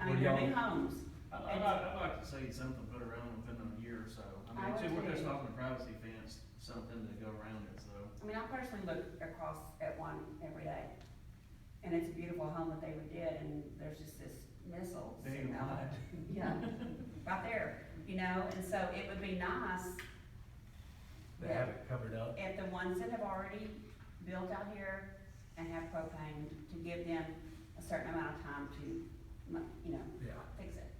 on your new homes. I- I'd like, I'd like to see something put around within a year or so. I I mean, would too, we're just too. talking privacy fence, something to go around it, so. I mean, I personally look across at one every day, and it's a beautiful home that they would get, and there's just this missile They sitting ain't out. lying. Yeah, right there, you know, and so it would be nice They have it covered up. if the ones that have already built out here and have propane, to give them a certain amount of time to, you know, Yeah. fix it.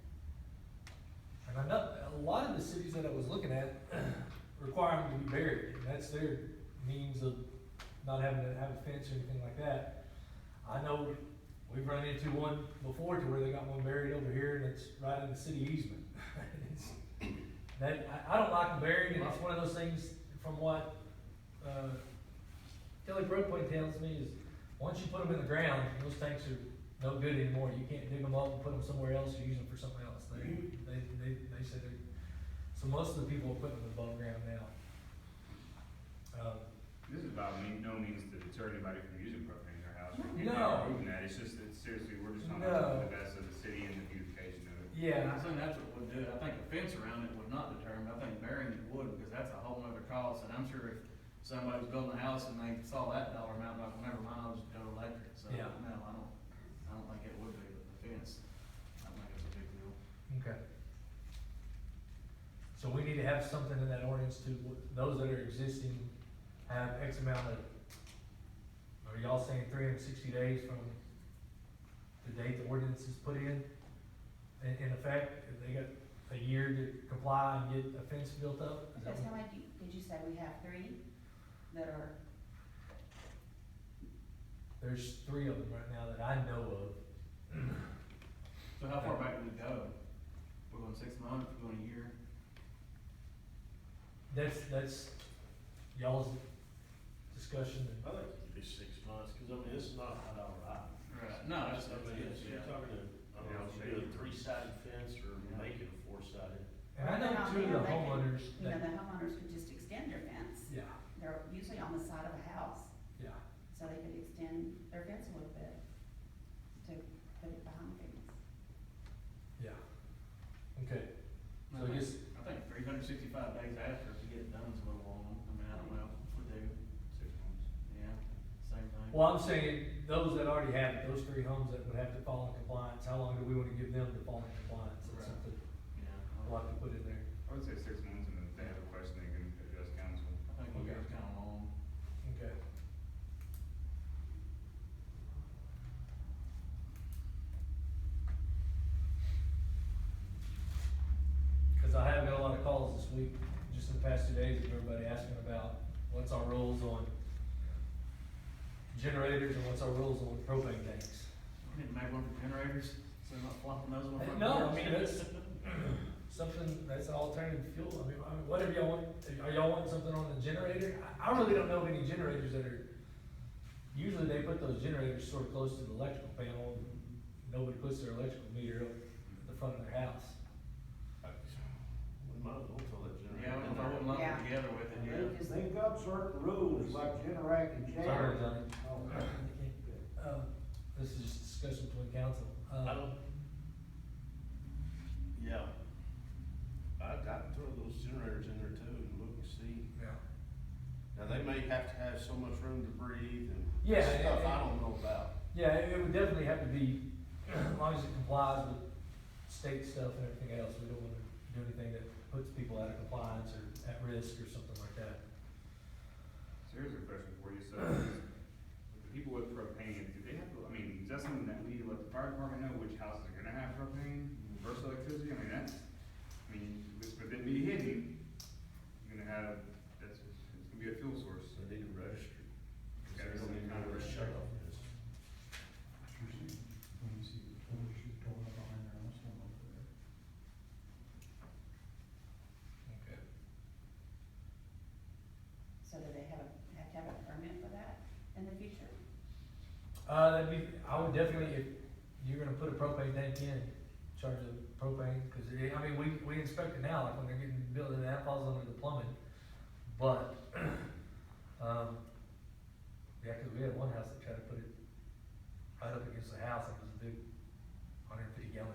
And I know, a lot of the cities that I was looking at require them to be buried, and that's their means of not having to have a fence or anything like that. I know we've run into one before to where they got one buried over here and it's right in the city easement. It's- That, I, I don't like them buried, and it's one of those things from what, uh, Kelly Broadway tells me is, once you put them in the ground, those tanks are no good anymore. You can't dig them up and put them somewhere else or use them for something else. They, they, they, they say they, so most of the people are putting them above ground now. Um, This is by me- no means to deter anybody from using propane in their house. We can't No. remove that, it's just, that seriously, we're just not No. the best of the city and the beautification of And it. yeah, I think that's what would do it. I think a fence around it would not deter 'em. I think burying it would, because that's a whole nother cost. And I'm sure if somebody was building a house and they saw that dollar amount, like, never mind, I'll just go electric. So, no, Yeah. I don't, I don't think it would be, but the fence, I think it's a big deal. okay. So we need to have something in that ordinance to, those that are existing have X amount of, are y'all saying three hundred and sixty days from the date the ordinance is put in? In, in effect, If they got a year to comply and get a fence built up? Is that Because what- how many, do- did you say we have three that are, There's three of them right now that I know of. So how far back do we go? We're going six months, we're going a year? That's, that's y'all's discussion and, I think it'd be six months, cause I mean, this is not high dollar item. Right. No, that's, I that's, mean, it's, yeah. you're talking to, I don't know, if you do a three-sided fence or make it a four-sided. and I know two of the homeowners you know, that, the homeowners could just extend their fence. yeah, They're usually on the side of a house, yeah. so they could extend their fence a little bit to put it behind the fence. Yeah. Okay, so I guess, I think three hundred sixty-five days after to get it done is a little long, I mean, I don't know if we do, Six months. yeah, same thing. well, I'm saying, those that already have it, those three homes that would have to fall in compliance, how long do we wanna give them to fall in compliance? Right. That's something Yeah, we'll I have to put in there. I would say six months, and if they have a question, they can address council. I think we got kind of long. Okay. Cause I have got a lot of calls this week, just in the past two days, of everybody asking about what's our rules on generators and what's our rules on propane tanks. We need to make one for generators, so they're not flopping those Uh, one. no, I mean, that's- Something that's an alternative fuel, I mean, I mean, whatever y'all want, are y'all wanting something on the generator? I, I really don't know of any generators that are, usually they put those generators sort of close to the electrical panel, and nobody puts their electrical meter up at the front of their house. We might as well throw that Yeah, I generator wouldn't, I in there. wouldn't lump Yeah. them together with it, yeah. Because They've got certain rules, like generating and Sorry, Johnny. Oh, Um, this is just discussion between council. Uh, I don't. Yeah. I, I'd throw those generators in there too and look and see. Yeah. Now, they may have to have so much room to breathe and Yeah, and- stuff I and- don't know about. Yeah, it it would definitely have to be, as long as it complies with state stuff and everything else, we don't wanna do anything that puts people out of compliance or at risk or something like that. So here's a question for you, so, with the people with propane, do they have, to- I mean, is that something that we let the fire department know which houses are gonna have propane versus electricity, I mean, that's, I mean, with, with it being hidden, you're gonna have, that's, it's gonna be a fuel source. So they need to register. It's They gotta be don't some even kind know of where to shut off this. Okay. So do they have, a- have to have a permit for that in the future? Uh, that'd be, I would definitely, if you're gonna put a propane tank in, charge the propane, cause it, I mean, we, we inspect it now, like when they're getting built, and that falls under the plumbing. But, um, yeah, cause we had one house that tried to put it right up against the house, and it was a big hundred and fifty gallon